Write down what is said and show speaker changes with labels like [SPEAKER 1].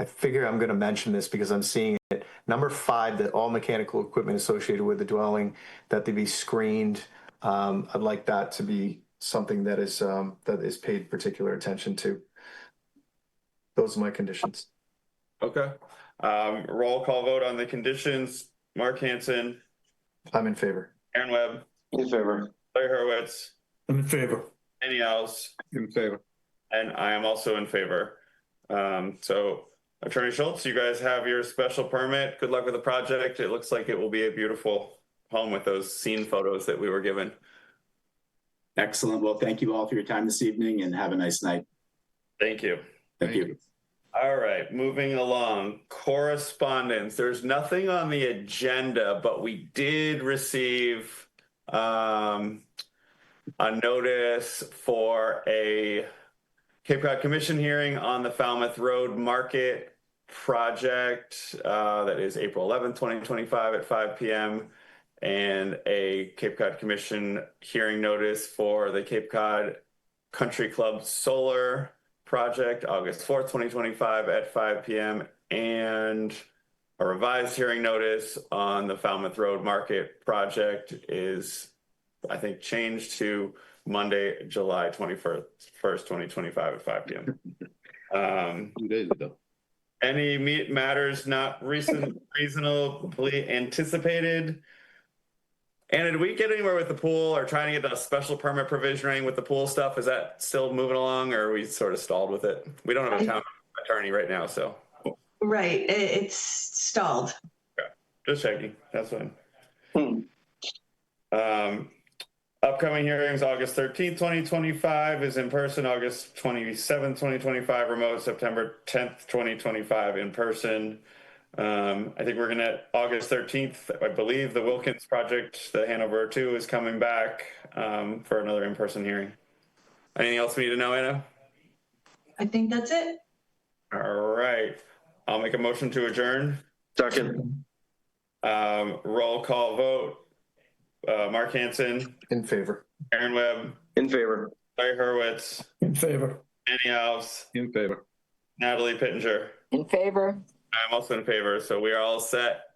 [SPEAKER 1] I figure I'm going to mention this because I'm seeing it. Number five, that all mechanical equipment associated with the dwelling, that they be screened. Um, I'd like that to be something that is, um, that is paid particular attention to. Those are my conditions.
[SPEAKER 2] Okay. Um, roll call vote on the conditions. Mark Hanson,
[SPEAKER 1] I'm in favor.
[SPEAKER 2] Aaron Webb,
[SPEAKER 3] In favor.
[SPEAKER 2] Larry Hurwitz,
[SPEAKER 4] I'm in favor.
[SPEAKER 2] any else?
[SPEAKER 3] In favor.
[SPEAKER 2] And I am also in favor. Um, so Attorney Schultz, you guys have your special permit. Good luck with the project. It looks like it will be a beautiful home with those scene photos that we were given.
[SPEAKER 5] Excellent. Well, thank you all for your time this evening and have a nice night.
[SPEAKER 2] Thank you.
[SPEAKER 5] Thank you.
[SPEAKER 2] All right, moving along. Correspondence. There's nothing on the agenda, but we did receive um, a notice for a Cape Cod Commission hearing on the Falmouth Road Market project. Uh, that is April 11th, 2025 at 5 p.m. And a Cape Cod Commission hearing notice for the Cape Cod Country Club Solar project August 4th, 2025 at 5 p.m. and a revised hearing notice on the Falmouth Road Market project is, I think, changed to Monday, July 21st, 2025 at 5 p.m. Um,
[SPEAKER 3] Two days ago.
[SPEAKER 2] any meat matters not recent, reasonably anticipated? Anna, did we get anywhere with the pool or trying to get the special permit provisioning with the pool stuff? Is that still moving along or are we sort of stalled with it? We don't have a town attorney right now, so
[SPEAKER 6] Right, it, it's stalled.
[SPEAKER 2] just checking. That's fine.
[SPEAKER 3] Hmm.
[SPEAKER 2] Um, upcoming hearings, August 13th, 2025 is in person, August 27th, 2025 remote, September 10th, 2025 in person. Um, I think we're gonna, August 13th, I believe the Wilkins project, the Hanover 2 is coming back um, for another in-person hearing. Anything else we need to know, Anna?
[SPEAKER 6] I think that's it.
[SPEAKER 2] All right, I'll make a motion to adjourn.
[SPEAKER 3] Second.
[SPEAKER 2] Um, roll call vote. Uh, Mark Hanson,
[SPEAKER 1] In favor.
[SPEAKER 2] Aaron Webb,
[SPEAKER 3] In favor.
[SPEAKER 2] Larry Hurwitz,
[SPEAKER 4] In favor.
[SPEAKER 2] Annie Alves,
[SPEAKER 3] In favor.
[SPEAKER 2] Natalie Pittenger.
[SPEAKER 7] In favor?
[SPEAKER 2] I'm also in favor, so we are all set.